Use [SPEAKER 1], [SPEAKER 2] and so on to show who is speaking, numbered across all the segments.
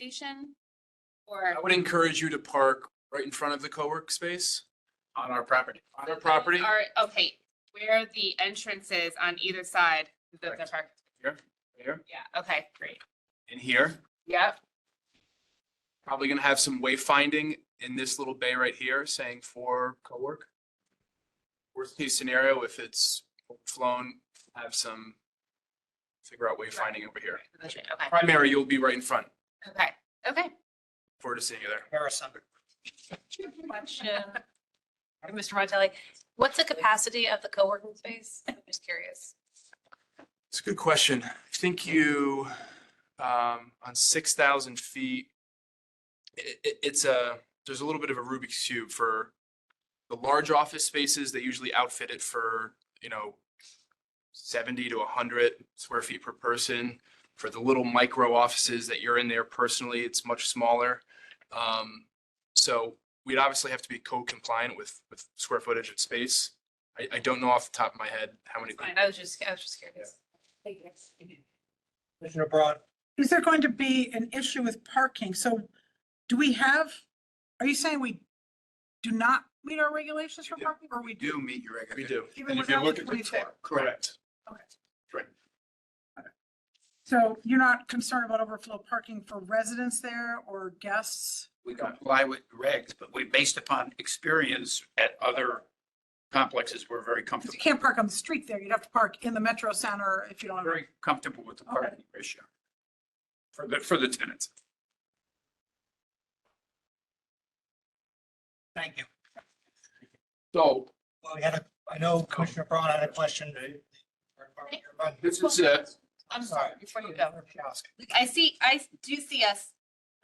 [SPEAKER 1] station? Or,
[SPEAKER 2] I would encourage you to park right in front of the co-work space
[SPEAKER 3] on our property.
[SPEAKER 2] on our property.
[SPEAKER 1] or, okay, where are the entrances on either side of the
[SPEAKER 3] Correct.
[SPEAKER 1] park?
[SPEAKER 3] Here, here,
[SPEAKER 1] Yeah, okay, great.
[SPEAKER 3] and here.
[SPEAKER 1] Yep,
[SPEAKER 2] Probably gonna have some wayfinding in this little bay right here saying for co-work. Worst case scenario, if it's flown, have some, figure out wayfinding over here.
[SPEAKER 1] okay, okay,
[SPEAKER 2] Primary, you'll be right in front.
[SPEAKER 1] okay, okay.
[SPEAKER 2] Forward to seeing you there.
[SPEAKER 4] Harrison.
[SPEAKER 5] Question. for Mr. Montelli, what's the capacity of the co-working space? I'm just curious.
[SPEAKER 2] It's a good question. I think you, um, on six thousand feet, it, it, it's a, there's a little bit of a Rubik's cube for the large office spaces. They usually outfit it for, you know, seventy to hundred square feet per person. For the little micro offices that you're in there personally, it's much smaller. Um, so we'd obviously have to be code compliant with, with square footage and space. I, I don't know off the top of my head how many.
[SPEAKER 5] Fine, I was just, I was just curious.
[SPEAKER 4] Commissioner Braun.
[SPEAKER 6] Is there going to be an issue with parking? So do we have, are you saying we do not meet our regulations for
[SPEAKER 2] We do.
[SPEAKER 6] parking or we do?
[SPEAKER 3] Do meet your
[SPEAKER 2] We do.
[SPEAKER 6] Even
[SPEAKER 3] And if you
[SPEAKER 6] without
[SPEAKER 3] look
[SPEAKER 6] the
[SPEAKER 3] at the
[SPEAKER 6] 22?
[SPEAKER 3] chart, correct.
[SPEAKER 6] Okay.
[SPEAKER 3] Right.
[SPEAKER 6] Okay. So you're not concerned about overflow parking for residents there or guests?
[SPEAKER 3] We comply with regs, but we, based upon experience at other complexes, we're very
[SPEAKER 6] 'Cause you
[SPEAKER 3] comfortable,
[SPEAKER 6] can't park on the street there. You'd have to park in the Metro Center if you don't have.
[SPEAKER 3] very comfortable with the parking ratio for the, for the tenants.
[SPEAKER 4] Thank you.
[SPEAKER 3] So
[SPEAKER 4] Well, we had a, I know Commissioner Braun had a question.
[SPEAKER 3] this is a,
[SPEAKER 1] I'm sorry, before you go. Like, I see, I do see us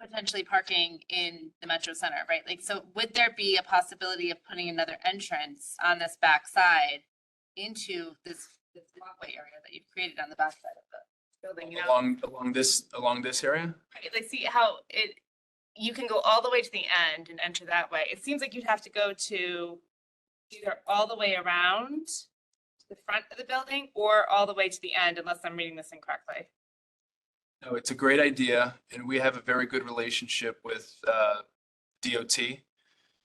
[SPEAKER 1] potentially parking in the Metro Center, right? Like, so would there be a possibility of putting another entrance on this back side into this, this walkway area that you've created on the back side of the building? you know?
[SPEAKER 2] Along, along this, along this area?
[SPEAKER 1] Right, Like, see how it, you can go all the way to the end and enter that way. It seems like you'd have to go to either all the way around to the front of the building or all the way to the end, unless I'm reading this incorrectly.
[SPEAKER 2] No, it's a great idea and we have a very good relationship with uh, DOT.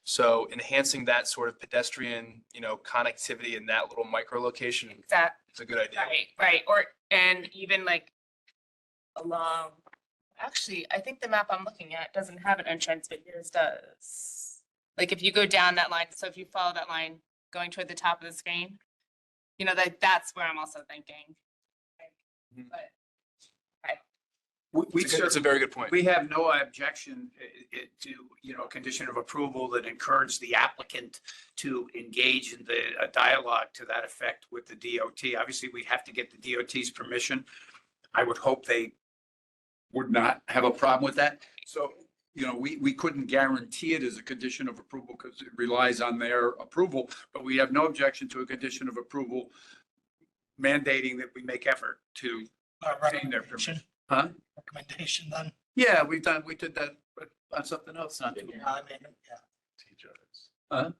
[SPEAKER 2] So enhancing that sort of pedestrian, you know, connectivity in that little micro location
[SPEAKER 1] Exactly.
[SPEAKER 2] is a good idea.
[SPEAKER 1] Right, right, or, and even like along, actually, I think the map I'm looking at doesn't have an entrance, but yours does. Like if you go down that line, so if you follow that line going toward the top of the screen, you know, that, that's where I'm also thinking.
[SPEAKER 2] Mhm.
[SPEAKER 1] But
[SPEAKER 3] we, we
[SPEAKER 2] It's a good- it's a very good point.
[SPEAKER 3] We have no objection i- i- to, you know, condition of approval that encourage the applicant to engage in the a dialogue to that effect with the DOT. Obviously, we have to get the DOT's permission. I would hope they would not have a problem with that. So, you know, we, we couldn't guarantee it as a condition of approval because it relies on their approval, but we have no objection to a condition of approval mandating that we make effort to
[SPEAKER 4] Uh, Recommendation.
[SPEAKER 3] Huh?
[SPEAKER 4] Recommendation then.
[SPEAKER 3] Yeah, we've done, we did that but on something else, not too.
[SPEAKER 4] I mean, yeah.
[SPEAKER 3] Huh?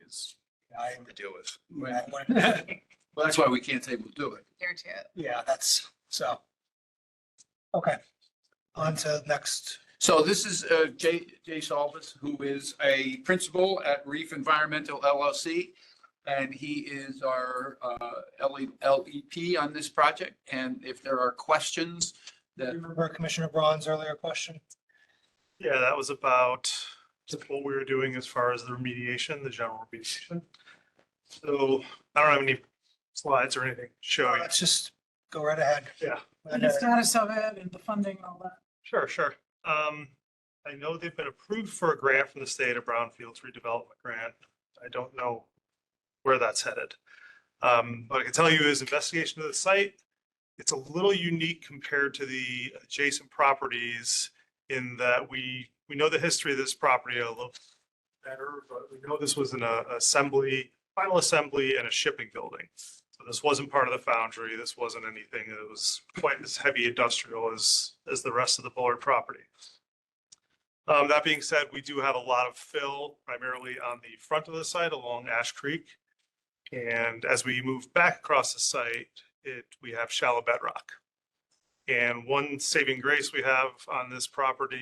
[SPEAKER 2] It's
[SPEAKER 4] I,
[SPEAKER 2] to deal with.
[SPEAKER 4] I wouldn't-
[SPEAKER 3] Well, that's why we can't say we'll do it.
[SPEAKER 5] Here too.
[SPEAKER 4] yeah, that's, so. Okay. On to next.
[SPEAKER 3] So this is uh, Jay, Jay Salvis, who is a principal at Reef Environmental LLC. And he is our uh, LE LEP on this project. And if there are questions that
[SPEAKER 4] Remember Commissioner Braun's earlier question?
[SPEAKER 7] Yeah, that was about what we were doing as far as the remediation, the general remediation. So I don't have any slides or anything showing.
[SPEAKER 4] Let's just go right ahead.
[SPEAKER 7] Yeah.
[SPEAKER 6] And the status of it and the funding and all that.
[SPEAKER 7] Sure, sure. Um, I know they've been approved for a grant from the state, a brownfields redevelopment grant. I don't know where that's headed. Um, what I can tell you is investigation of the site, it's a little unique compared to the adjacent properties in that we, we know the history of this property a little better, but we know this was an uh, assembly, final assembly and a shipping building. So this wasn't part of the foundry. This wasn't anything that was quite as heavy industrial as, as the rest of the Bullard property. Um, that being said, we do have a lot of fill primarily on the front of the site along Ash Creek. And as we move back across the site, it, we have shallow bedrock. And one saving grace we have on this property